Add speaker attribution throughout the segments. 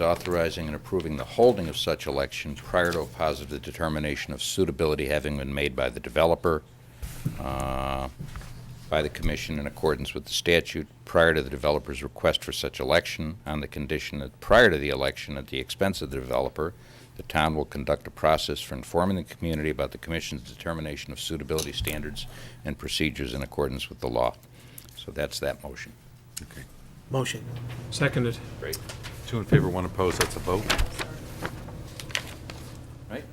Speaker 1: authorizing and approving the holding of such election prior to a positive determination of suitability having been made by the developer, uh, by the commission in accordance with the statute prior to the developer's request for such election, on the condition that prior to the election, at the expense of the developer, the town will conduct a process for informing the community about the commission's determination of suitability standards and procedures in accordance with the law. So that's that motion.
Speaker 2: Okay.
Speaker 3: Motion.
Speaker 4: Seconded.
Speaker 1: Great.
Speaker 2: Two in favor, one opposed, that's a vote.
Speaker 1: Right?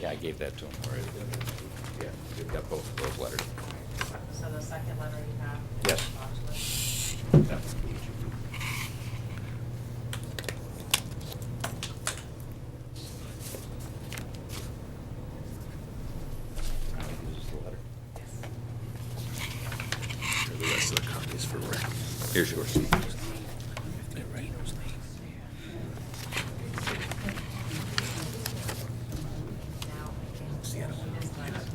Speaker 1: Yeah, I gave that to him already. Yeah, we've got both of those letters.
Speaker 5: So the second letter you have?
Speaker 1: Yes.
Speaker 5: Yes.
Speaker 1: Here's yours.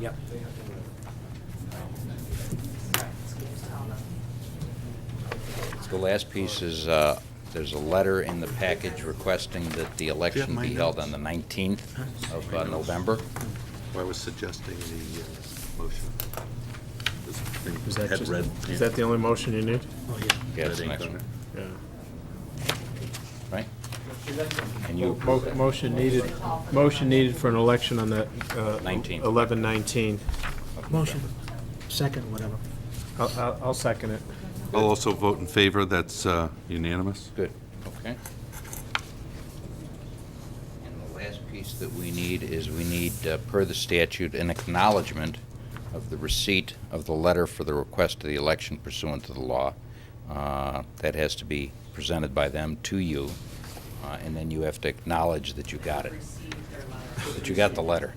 Speaker 3: Yep.
Speaker 1: The last piece is, uh, there's a letter in the package requesting that the election
Speaker 2: my
Speaker 1: be held
Speaker 2: notes?
Speaker 1: on the 19th of uh, November.
Speaker 2: I was suggesting the uh, motion. This thing
Speaker 4: Is that
Speaker 2: had
Speaker 4: just-
Speaker 2: red
Speaker 4: Is that the only motion you need?
Speaker 3: Oh, yeah.
Speaker 1: Yeah,
Speaker 2: red
Speaker 1: it's the
Speaker 2: ink
Speaker 1: next
Speaker 2: on
Speaker 1: one,
Speaker 2: it.
Speaker 4: Yeah.
Speaker 1: right? And you
Speaker 4: Mo-
Speaker 1: approve that.
Speaker 4: Motion needed, motion needed for an election on that. uh,
Speaker 1: 19.
Speaker 4: 11/19.
Speaker 3: Motion. Second, whatever.
Speaker 4: I'll- I'll I'll second it.
Speaker 2: I'll also vote in favor, that's uh, unanimous.
Speaker 1: Good, okay. And the last piece that we need is we need, uh, per the statute, an acknowledgement of the receipt of the letter for the request of the election pursuant to the law. Uh, That has to be presented by them to you, uh, and then you have to acknowledge that you got it, that you got the letter.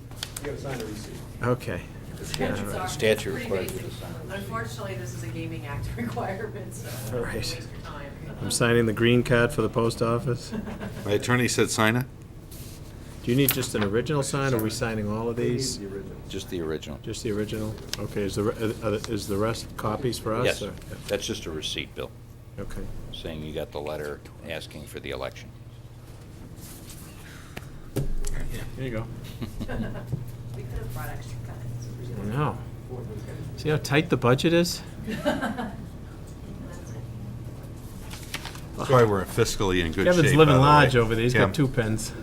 Speaker 4: Okay.
Speaker 1: The Statute requires you to sign.
Speaker 5: Unfortunately, this is a gaming act requirement, so.
Speaker 4: All
Speaker 5: don't
Speaker 4: right.
Speaker 5: waste your time.
Speaker 4: I'm signing the green card for the post office.
Speaker 2: My attorney said sign it?
Speaker 4: Do you need just an original sign, or are we signing all of these?
Speaker 1: Just the original.
Speaker 4: Just the original? Okay, is the, re- are the- is the rest copies for us?
Speaker 1: Yes,
Speaker 4: or-
Speaker 1: that's just a receipt, Bill,
Speaker 4: Okay.
Speaker 1: saying you got the letter asking for the election.
Speaker 4: There you go.
Speaker 5: We could have brought extra pens.
Speaker 4: Now, see how tight the budget is?
Speaker 2: That's why we're fiscally in good shape.
Speaker 4: Kevin's
Speaker 2: by
Speaker 4: living
Speaker 2: the way.
Speaker 4: large over there, he's
Speaker 2: Kim,
Speaker 4: got two pens.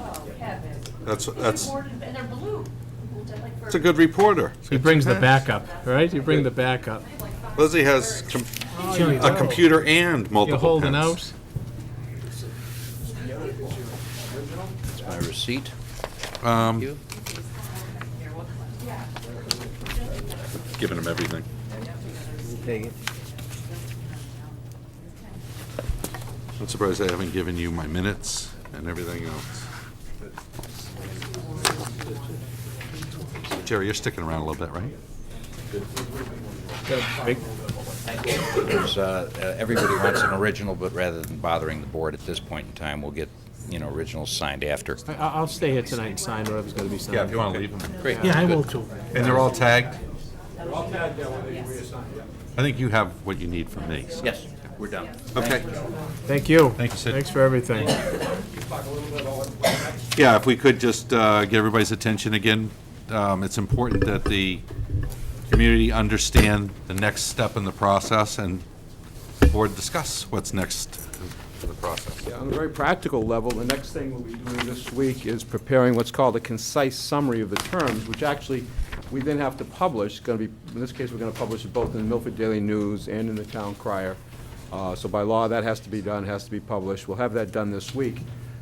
Speaker 5: Oh, Kevin.
Speaker 2: That's,
Speaker 5: These are
Speaker 2: that's,
Speaker 5: board- And they're blue. Like for-
Speaker 2: that's a good reporter.
Speaker 4: He brings the backup, right? You bring the backup.
Speaker 5: I have like five
Speaker 2: Lizzie has
Speaker 5: birds.
Speaker 2: com-
Speaker 4: Here we
Speaker 2: a
Speaker 4: go.
Speaker 2: computer and
Speaker 4: You're
Speaker 2: multiple
Speaker 4: holding out?
Speaker 2: pens.
Speaker 1: That's my receipt.
Speaker 2: Um,
Speaker 1: You?
Speaker 2: Giving him everything. I'm surprised I haven't given you my minutes and everything else. Jerry, you're sticking around a little bit, right?
Speaker 1: Because, uh, uh, Everybody wants an original, but rather than bothering the board at this point in time, we'll get, you know, originals signed after.
Speaker 4: I- I'll I'll stay here tonight and sign whatever's gonna be signed.
Speaker 2: want to leave them.
Speaker 1: Great.
Speaker 3: Yeah, I
Speaker 1: good.
Speaker 3: will too.
Speaker 2: And they're all tagged? I think you have what you need from me. so-
Speaker 1: Yes, we're done.
Speaker 2: Okay.
Speaker 4: Thank you.
Speaker 2: Thank you, Sid.
Speaker 4: Thanks for everything.
Speaker 2: Yeah, if we could just uh, get everybody's attention again, um, it's important that the community understand the next step in the process and the board discuss what's next in the process.
Speaker 6: Yeah, on a very practical level, the next thing we'll be doing this week is preparing what's called a concise summary of the terms, which actually, we then have to publish, It's going to be, in this case, we're going to publish it both in the Milford Daily News and in the Town Crier. Uh, So by law, that has to be done, has to be published. We'll have that done this week.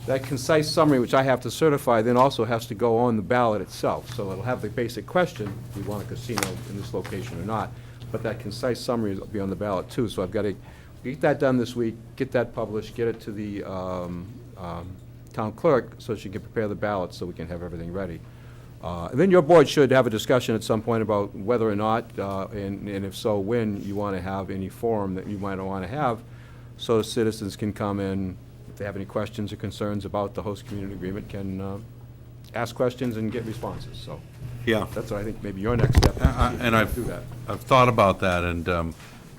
Speaker 6: That concise summary, which I have to certify, then also has to go on the ballot itself. So it'll have the basic question, we want a casino in this location or not, but that concise summary will be on the ballot too. So I've got to get that done this week, get that published, get it to the um, um, town clerk so she can prepare the ballot so we can have everything ready. Uh, And then your board should have a discussion at some point about whether or not, uh, and and if so, when you want to have any forum that you might want to have, so citizens can come in, if they have any questions or concerns about the host community agreement, can uh, ask questions and get responses. So
Speaker 2: Yeah.
Speaker 6: that's what I think maybe your next step.
Speaker 2: Uh, uh, And
Speaker 6: Do
Speaker 2: I've,
Speaker 6: that.
Speaker 2: I've thought about that, and um,